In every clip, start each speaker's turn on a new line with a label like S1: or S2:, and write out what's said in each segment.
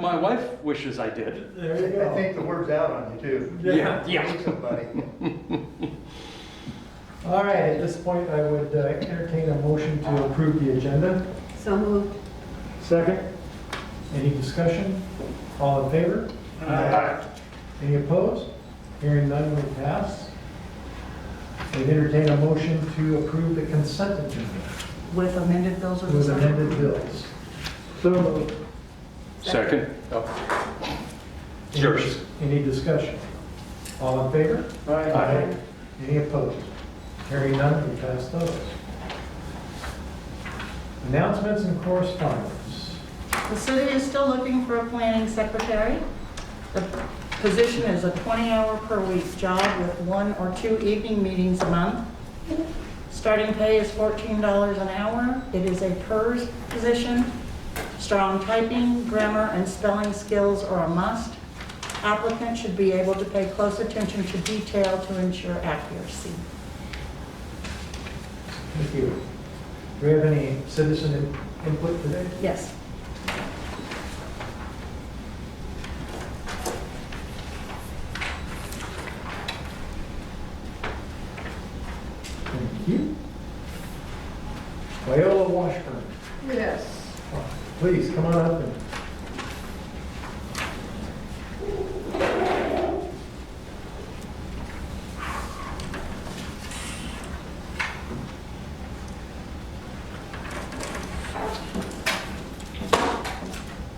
S1: My wife wishes I did.
S2: There you
S3: I
S2: go.
S3: think the word's out on you too.
S1: Yeah, yeah.
S3: Need Somebody.
S2: All right, at this point, I would uh, entertain a motion to approve the agenda.
S4: So moved.
S2: Second. Any discussion? All in favor? Any opposed? Hearing none, we pass. We'd entertain a motion to approve the consent agenda
S4: With amended bills or?
S2: with amended bills. So moved.
S1: Second. Sure.
S2: Any discussion? All in favor?
S1: Aye.
S2: Any opposed? Hearing none, we pass those. Announcements and correspondence.
S4: The city is still looking for a planning secretary. The position is a 20-hour per week job with one or two evening meetings a month. Starting pay is $14 an hour. It is a PERS position. Strong typing, grammar, and spelling skills are a must. Applicant should be able to pay close attention to detail to ensure accuracy.
S2: Thank you. Do we have any citizen in- input today?
S4: Yes.
S2: Thank you. Viola Washburn,
S5: Yes.
S2: please come on up and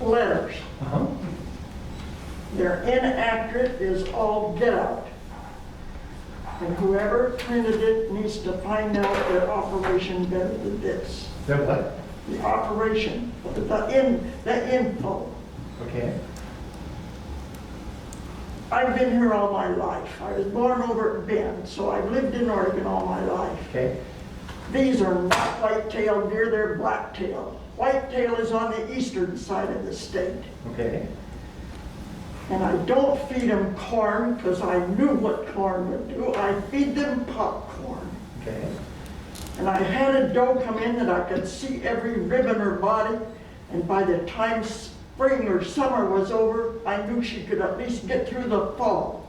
S5: Letters.
S2: Uh-huh.
S5: They're inaccurate is all get out. And whoever printed it needs to find out their operation better than this.
S2: That what?
S5: The operation, the in, the info.
S2: Okay.
S5: I've been here all my life. I was born over at Bend, so I've lived in Oregon all my life.
S2: Okay.
S5: These are not white-tailed deer, they're black-tailed. Whitetail is on the eastern side of the state.
S2: Okay.
S5: And I don't feed them corn because I knew what corn would do. I feed them popcorn.
S2: Okay.
S5: And I had a doe come in that I could see every rib in her body. And by the time spring or summer was over, I knew she could at least get through the fall.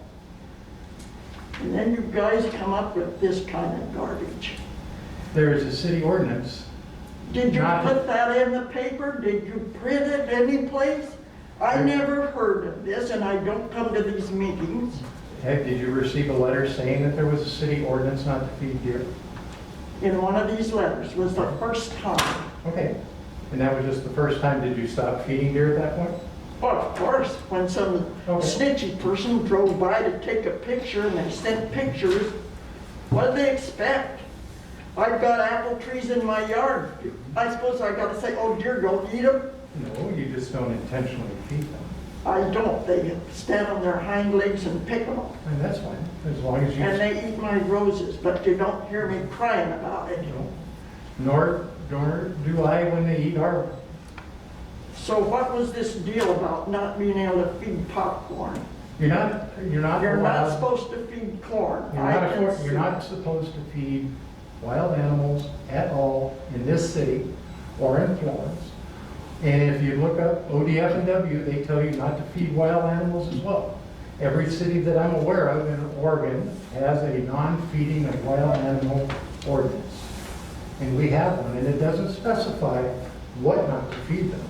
S5: And then you guys come up with this kind of garbage.
S2: There is a city ordinance.
S5: Did you
S2: Not-
S5: put that in the paper? Did you print it anyplace? I
S2: I-
S5: never heard of this and I don't come to these meetings.
S2: Have, did you receive a letter saying that there was a city ordinance not to feed deer?
S5: in one of these letters was the first time.
S2: Okay. And that was just the first time, did you stop feeding deer at that point?
S5: Well, of course, when some
S2: Okay.
S5: snitchy person drove by to take a picture and they sent pictures, what did they expect? I've got apple trees in my yard. I suppose I gotta say, oh dear, don't eat them?
S2: No, you just don't intentionally feed them.
S5: I don't. They stand on their hind legs and pick them up.
S2: And that's fine, as long as you.
S5: And they eat my roses, but you don't hear me crying about it.
S2: you know, Nor, nor do I when they eat our,
S5: So what was this deal about not being able to feed popcorn?
S2: you're not, you're not
S5: You're not
S2: allowed.
S5: supposed to feed corn.
S2: You're
S5: I
S2: not,
S5: can
S2: afford-
S5: see-
S2: you're not supposed to feed wild animals at all in this city or in Florence. And if you look up ODF and W, they tell you not to feed wild animals as well. Every city that I'm aware of in Oregon has a non-feeding of wild animal ordinance. And we have one, and it doesn't specify what not to feed them.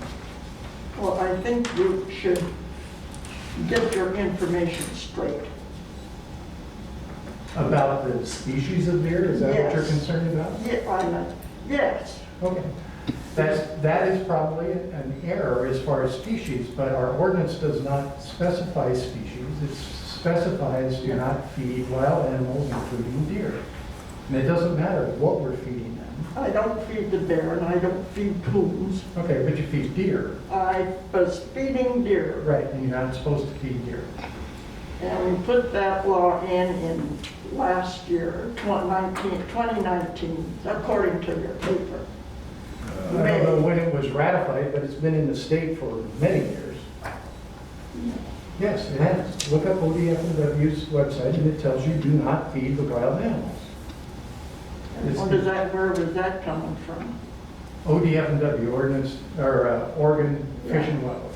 S5: Well, I think you should get your information straight.
S2: About the species of deer, is that what you're
S5: Yes.
S2: concerned about?
S5: Yeah, I know. Yes,
S2: Okay. That's, that is probably an error as far as species, but our ordinance does not specify species. It specifies do not feed wild animals, including deer. And it doesn't matter what we're feeding them.
S5: I don't feed the bear and I don't feed coons.
S2: Okay, but you feed deer,
S5: I was feeding deer.
S2: right, and you're not supposed to feed deer.
S5: And we put that law in in last year, 2019, 2019, according to your paper.
S2: I don't know when it was ratified, but it's been in the state for many years. Yes, it has. Look up ODFW's website, and it tells you do not feed the wild animals. It's
S5: What
S2: the-
S5: is that, where was that coming from?
S2: ODF and W ordinance, or uh, Oregon Fish and Wildlife.